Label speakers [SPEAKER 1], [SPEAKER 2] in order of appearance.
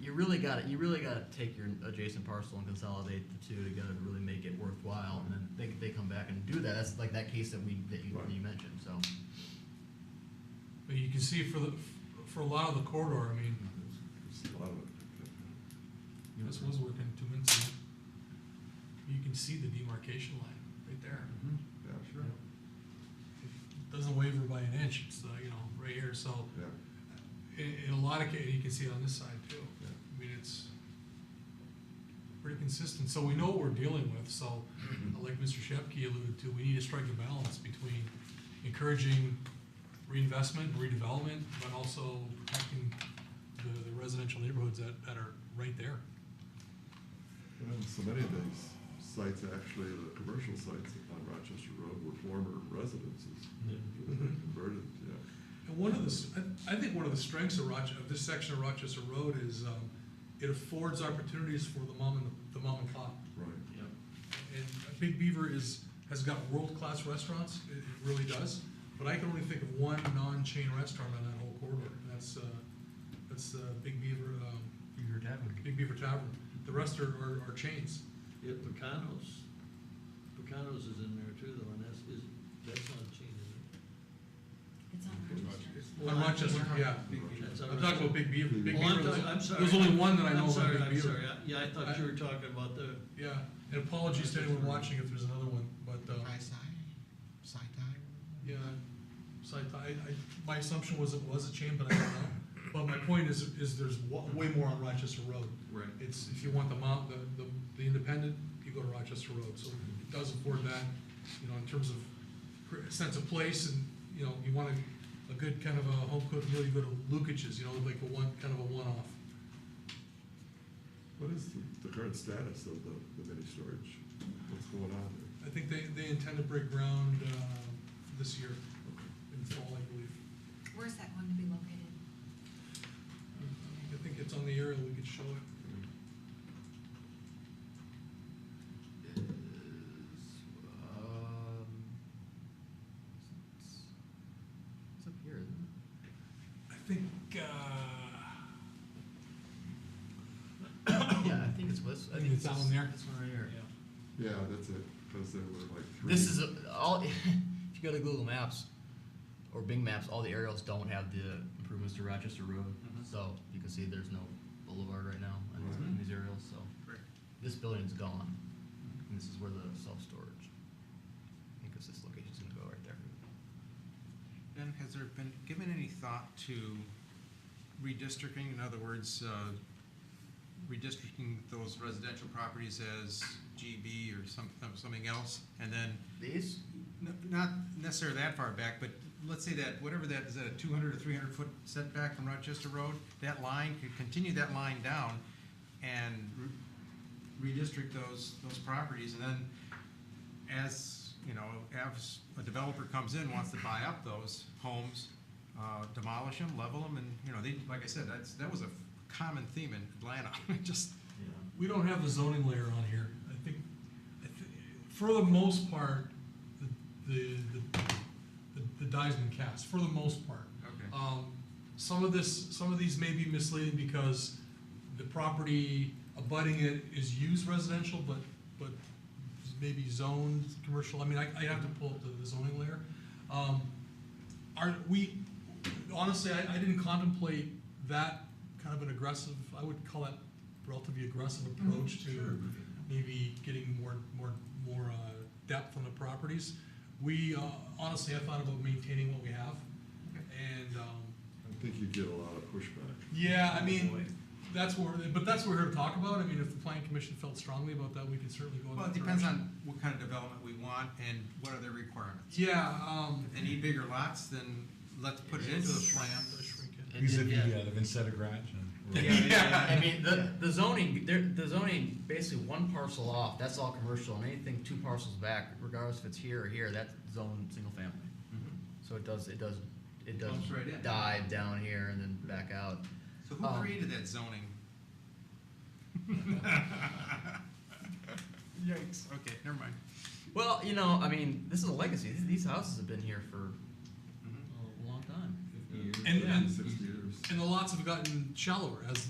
[SPEAKER 1] you really got to you really got to take your adjacent parcel and consolidate the two together to really make it worthwhile. And then they, they come back and do that. That's like that case that we that you, that you mentioned. So
[SPEAKER 2] But you can see for the, for a lot of the corridor, I mean,
[SPEAKER 3] It's a lot of-
[SPEAKER 2] this was working two minutes ago. You can see the demarcation line right there.
[SPEAKER 1] Mm-hmm.
[SPEAKER 3] Yeah, sure,
[SPEAKER 2] It Doesn't waver by an inch, it's, uh, you know, right here, so
[SPEAKER 3] yeah.
[SPEAKER 2] in, in a lot of cases, you can see it on this side too.
[SPEAKER 3] Yeah.
[SPEAKER 2] I mean, it's pretty consistent, so we know what we're dealing with, so uh, like Mr. Shepke alluded to, we need to strike a balance between encouraging reinvestment, redevelopment, but also protecting the, the residential neighborhoods that, that are right there.
[SPEAKER 3] And so many of these sites, actually, the commercial sites on Rochester Road were former residences. Converted, yeah.
[SPEAKER 4] And one of the, s- I- I think one of the strengths of Rochester, of this section of Rochester Road is, um, it affords opportunities for the mom and, the mom and pop.
[SPEAKER 3] Right.
[SPEAKER 4] And Big Beaver is, has got world-class restaurants, it it really does, but I can only think of one non-chain restaurant on that whole corridor, and that's, uh, that's, uh, Big Beaver, um,
[SPEAKER 5] Beaver Tavern.
[SPEAKER 4] Big Beaver Tavern. The rest are, are, are chains.
[SPEAKER 6] Yeah, Pecano's, Pecano's is in there too, though, and that's, is, that's not a chain, is
[SPEAKER 7] It's on Rochester.
[SPEAKER 4] On Rochester, yeah.
[SPEAKER 6] it? That's
[SPEAKER 4] I'm talking about Big Beaver, Big
[SPEAKER 6] Oh,
[SPEAKER 4] Beaver,
[SPEAKER 6] I'm talking, I'm
[SPEAKER 4] there's
[SPEAKER 6] sorry.
[SPEAKER 4] there's only one that I know of,
[SPEAKER 6] I'm
[SPEAKER 4] on
[SPEAKER 6] sorry,
[SPEAKER 4] Big
[SPEAKER 6] I'm
[SPEAKER 4] Beaver.
[SPEAKER 6] sorry, I- yeah, I thought you were talking about the,
[SPEAKER 4] Yeah, and apologies to anyone watching if there's another one, but, um, yeah, so I, I, I- my assumption was it was a chain, but I don't know. But my point is, is there's wa- way more on Rochester Road.
[SPEAKER 6] Right.
[SPEAKER 4] It's, if you want the mount, the, the, the independent, you go to Rochester Road, so it does afford that, you know, in terms of cr- sense of place and, you know, you want a, a good kind of a home cooked meal, you go to Lukic's, you know, like a one, kind of a one-off.
[SPEAKER 3] What is the, the current status of the, the mini storage? What's going on there?
[SPEAKER 4] I think they, they intend to break ground, uh, this year, in fall, I believe.
[SPEAKER 7] Where's that going to be located?
[SPEAKER 4] I think it's on the aerial, we could show it.
[SPEAKER 1] is, um, it's, it's up here, isn't it?
[SPEAKER 2] I think, uh,
[SPEAKER 1] yeah, I think it's this. I
[SPEAKER 2] Think
[SPEAKER 1] think
[SPEAKER 2] it's
[SPEAKER 1] this-
[SPEAKER 2] down there?
[SPEAKER 1] This one right here.
[SPEAKER 3] Yeah, that's it, because there were like three.
[SPEAKER 1] This is a- all. if you go to Google Maps or Bing Maps, all the aerials don't have the improvements to Rochester Road, so you can see there's no boulevard right now in these- in these aerials. So
[SPEAKER 6] Right.
[SPEAKER 1] this building's gone, and this is where the self storage. I think it's this location's gonna go right there.
[SPEAKER 5] Then has there been given any thought to redistricting, in other words, uh, redistricting those residential properties as GB or some, something else? And then,
[SPEAKER 1] These?
[SPEAKER 5] n- not necessarily that far back, but let's say that, whatever that, is that a two hundred or three hundred foot setback from Rochester Road? That line, could continue that line down and re- redistrict those, those properties and then as, you know, as a developer comes in, wants to buy up those homes, uh, demolish them, level them, and, you know, they, like I said, that's, that was a common theme in Atlanta, just,
[SPEAKER 1] Yeah.
[SPEAKER 2] we don't have the zoning layer on here. I think, I thi- for the most part, the, the, the- the die's been cast, for the most part.
[SPEAKER 5] okay.
[SPEAKER 2] Um, some of this, some of these may be misleading because the property abutting it is used residential, but, but maybe zoned commercial. I mean, I, I'd have to pull up the- the zoning layer. Um, are, we, honestly, I, I didn't contemplate that kind of an aggressive, I would call that relatively aggressive approach to maybe getting more, more, more, uh, depth on the properties. We, uh, honestly, I thought about maintaining what we have and, um,
[SPEAKER 3] I think you'd get a lot of pushback.
[SPEAKER 2] yeah, I mean, that's what, we're but that's what we're here to talk about. I mean, if the planning commission felt strongly about that, we could certainly go in
[SPEAKER 5] Well,
[SPEAKER 2] that
[SPEAKER 5] it depends
[SPEAKER 2] direction.
[SPEAKER 5] on what kind of development we want and what are their requirements.
[SPEAKER 2] Yeah, um.
[SPEAKER 5] If they need bigger lots, then let's put it into the plan.
[SPEAKER 2] Shrink it.
[SPEAKER 1] It-
[SPEAKER 8] Because
[SPEAKER 1] it-
[SPEAKER 8] if you,
[SPEAKER 1] yeah.
[SPEAKER 8] yeah, live inside a garage and.
[SPEAKER 1] I mean, the, the zoning, there, the zoning, basically one parcel off, that's all commercial, and anything two parcels back, regardless if it's here or here, that's zoned single family. So it does, it does, it does
[SPEAKER 5] Bumps right in.
[SPEAKER 1] dive down here and then back out.
[SPEAKER 5] So who
[SPEAKER 1] Um,
[SPEAKER 5] created that zoning? Yikes, okay, never mind.
[SPEAKER 1] Well, you know, I mean, this is a legacy, these, these houses have been here for a long time.
[SPEAKER 3] Fifty years.
[SPEAKER 2] And- and-
[SPEAKER 3] Sixty years.
[SPEAKER 2] And the lots have gotten shallower as,